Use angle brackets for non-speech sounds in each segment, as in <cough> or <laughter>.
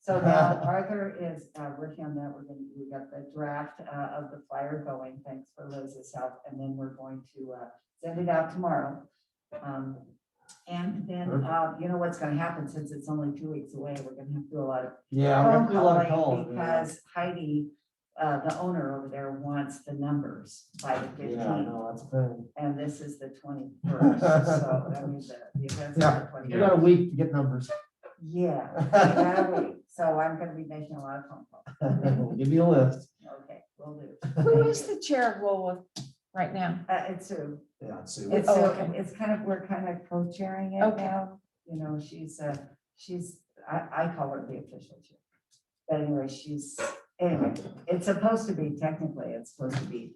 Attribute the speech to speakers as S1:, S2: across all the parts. S1: So
S2: Uh-huh.
S1: now Arthur is uh, working on that. We're going to, we got the draft uh, of the flyer going. Thanks for Liz's help. And then we're going to uh, send it out tomorrow. Um, And then, uh, you know what's going to happen since it's only two weeks away, we're going to have to do a lot of
S2: Yeah, we're
S1: phone
S2: gonna do a lot of
S1: calling
S2: calls. yeah.
S1: because Heidi, uh, the owner over there wants the numbers by the
S2: Yeah, I
S1: fifteenth.
S2: know, that's been,
S1: And this is
S2: <laughs>
S1: the twenty-first, so I mean, the, the event's
S2: Yeah.
S1: are
S2: we
S1: the
S2: got a
S1: twenty.
S2: week to get numbers. <laughs>
S1: Yeah, exactly. So I'm gonna be making a lot of phone calls.
S2: Give me a list.
S1: Okay, will do.
S3: Who is the chair of Woolworth right now?
S1: Uh, it's Sue.
S2: Yeah,
S1: It's,
S3: Oh,
S1: Sue.
S3: okay.
S1: it's kind of, we're kind of co-chairing it
S3: Okay.
S1: now. You know, she's, uh, she's, I, I call her the official chair. But anyway, she's, anyway, it's supposed to be technically, it's supposed to be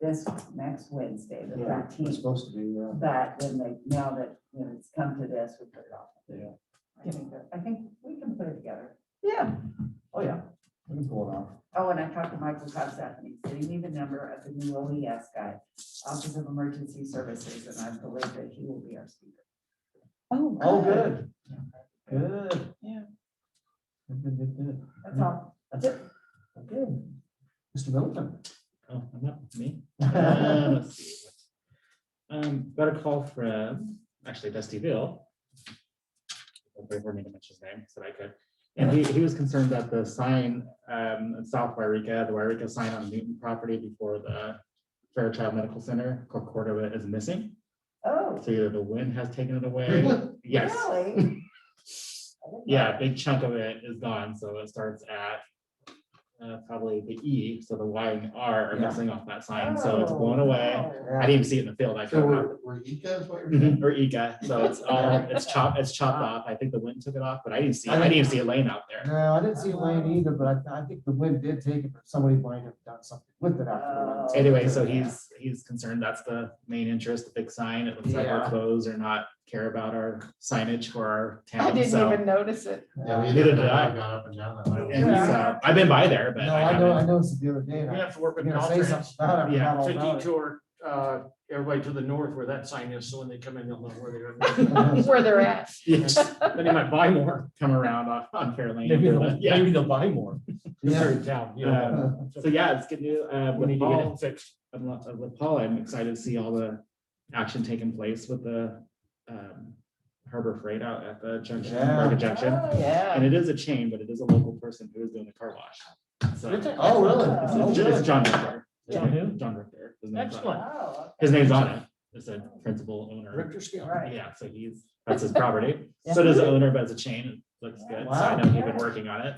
S1: this next Wednesday, the
S2: Yeah, It's
S1: thirteenth.
S2: supposed to be, yeah.
S1: But then they, now that, you know, it's come to this, we put it off.
S2: Yeah.
S1: I think, that- I think we can put it together.
S3: Yeah.
S2: Oh, yeah. We can pull it off.
S1: <laughs> Oh, and I talked to Michael Cossack, and he said he knew the number of the new OES guy, Office of Emergency Services, and I believe that he will be our speaker.
S3: Oh.
S2: Oh, good. Good.
S3: Yeah.
S2: Good, good, good, good.
S1: That's all.
S2: That's it. Good. Mr. Middleton. <laughs>
S4: Oh, I'm not me. Uh, let's see. Um, got a call from, actually Dusty Bill. I don't me to mention his name, so I could. And he, he was concerned that the sign, um, in South Wairika, the Wairika sign on Newton property before the Fairchild Medical Center, a quarter of it is missing.
S1: Oh,
S4: So either the wind has taken it away. Yes. <laughs>
S1: really?
S4: Yeah, a big chunk of it is gone, so it starts at uh, probably the E, so the Y and the R are
S2: Yeah.
S4: missing off that sign, so it's
S1: Oh,
S4: blown away.
S1: wow.
S4: I didn't even see it in the field, I
S5: So
S4: drove up.
S5: we're, we're Ecos, what you're saying?
S4: Mhm, Or Ega, so it's all, it's chopped, it's chopped off, I think the wind took it off, but I didn't see, I didn't even see a lane out there.
S2: No, I didn't see Elaine either, but I, I think the wind did take it, but somebody might have done something with it after.
S4: Anyway, so he's, he's concerned, that's the main interest, the big sign, it looks like our
S2: Yeah.
S4: clothes are not care about our signage for our
S3: I
S4: town,
S3: didn't
S4: so.
S3: even notice it.
S1: Oh.
S5: Yeah, we
S2: Yeah.
S4: Neither
S5: did,
S4: did I.
S5: I got up and down that way.
S4: And so, I've been by there, but
S2: No,
S4: I
S2: I know, I
S4: <laughs> haven't.
S2: noticed it the other day. and I
S6: have to work
S2: was
S6: with
S2: gonna say
S6: Caltrans
S2: something about it,
S4: Yeah,
S2: I forgot all
S6: to
S2: about it.
S6: detour, uh, everybody to the north where that sign is, so when they come in, they'll know where they
S2: <laughs>
S6: are.
S2: Oh,
S3: Where they're at.
S4: Yes.
S6: Then they might buy more.
S4: Come around on, on Fair Lane.
S6: Maybe
S4: but
S6: <laughs> they'll,
S4: yeah.
S6: maybe they'll buy more. 'cause They're in town, you know.
S4: Um, So yeah, it's good news. Uh,
S6: We
S4: with
S6: need to get
S4: Paul,
S6: it fixed.
S4: I'm lo- uh, with Paul, I'm excited to see all the action taking place with the um, Harbor Freight out at the junction,
S2: Yeah.
S4: Market Junction.
S1: Oh,
S4: And
S3: Yeah.
S4: it is a chain, but it is a local person who is doing the car wash. So it's,
S2: Oh, really?
S4: it's
S2: Oh,
S4: it's
S2: good.
S4: John Richter.
S6: John who?
S4: John Richter. His name's on it.
S6: Excellent.
S1: Oh,
S4: His name's on it. It's a principal owner.
S6: Richter
S1: okay,
S6: scale.
S1: right.
S4: Yeah, so he's, that's his property. So does the owner, but it's a chain. It looks good. So I know he's been working on it.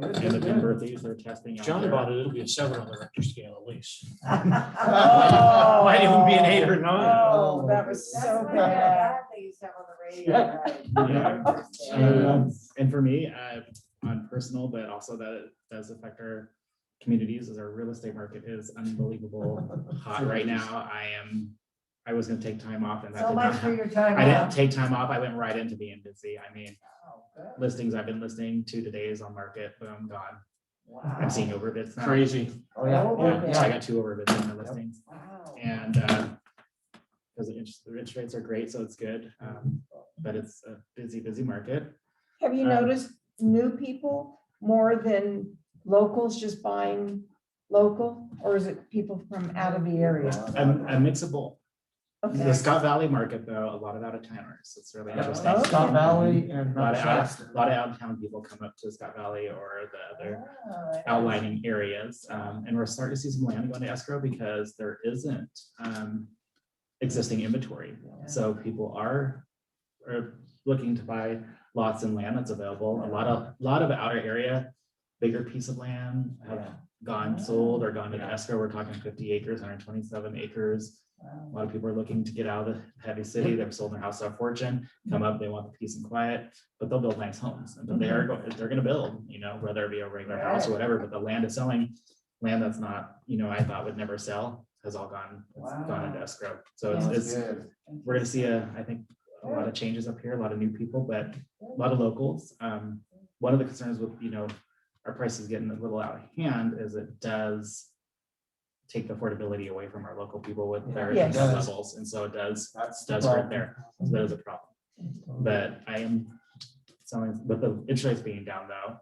S2: Good,
S4: And the
S2: good, good.
S4: Timberleaves are testing. out
S6: John
S4: there.
S6: bought it, it'll be a seven on the Richter scale at least.
S4: <laughs>
S1: Oh.
S6: <laughs> Might even be an eight or nine.
S3: Oh, that was
S1: That's
S3: so
S1: what
S3: bad.
S1: that they used to have on the radio. right?
S4: Yeah.
S1: Yeah.
S4: Um, And for me, uh, on personal, but also that it does affect our communities is our real estate market is unbelievable hot right now. I am, I was gonna take time off and that
S1: So
S4: did
S1: much
S4: not
S1: for
S4: happen.
S1: your time.
S4: I didn't
S1: off.
S4: take time off. I went right into being busy. I mean,
S1: Oh, good.
S4: listings I've been listening to today is on market, but I'm gone.
S1: Wow.
S4: I'm seeing overbids now.
S6: Crazy.
S2: Oh, yeah,
S4: Yeah,
S2: yeah,
S4: so I
S2: yeah.
S4: got two overbids in my listings.
S1: Wow.
S4: And because the interest, the interest rates are great, so it's good. Um, But it's a busy, busy market.
S3: Have you
S4: Um,
S3: noticed new people more than locals just buying local? Or is it people from out of the area?
S4: A a mix of both. The
S3: Okay.
S4: Scott Valley market, though, a lot of out of towners. It's really interesting.
S2: Yeah. Oh, Scott Valley and
S4: A lot
S2: Mount
S4: of out,
S2: Shasta.
S4: a lot of out of town people come up to Scott Valley or the other
S1: Oh,
S4: outlining areas. Um, and we're starting to see some land going to escrow because there isn't, um, existing inventory. So people are, are looking to buy lots and land that's available. A lot of, lot of outer area, bigger piece of land have gone sold or gone into escrow. We're talking fifty acres, hundred twenty-seven acres.
S1: wow.
S4: A lot of people are looking to get out of the heavy city. They've sold their house off fortune, come up, they want the peace and quiet, but they'll build nice homes. And they are, go- they're gonna build, you know, whether it be a regular house or whatever, but the land is selling. Land that's not, you know, I thought would never sell has all gone, it's gone into
S1: Wow.
S4: escrow. So it's, it's,
S2: Good.
S4: we're gonna see a, I think, a lot of changes up here, a lot of new people, but a lot of locals. Um, one of the concerns with, you know, our prices getting a little out of hand is it does take the affordability away from our local people with their
S3: Yes.
S4: income levels, and so it does,
S2: That's.
S4: does
S2: well,
S4: hurt there. So that is a problem, but I am selling, with the interest rates being down though,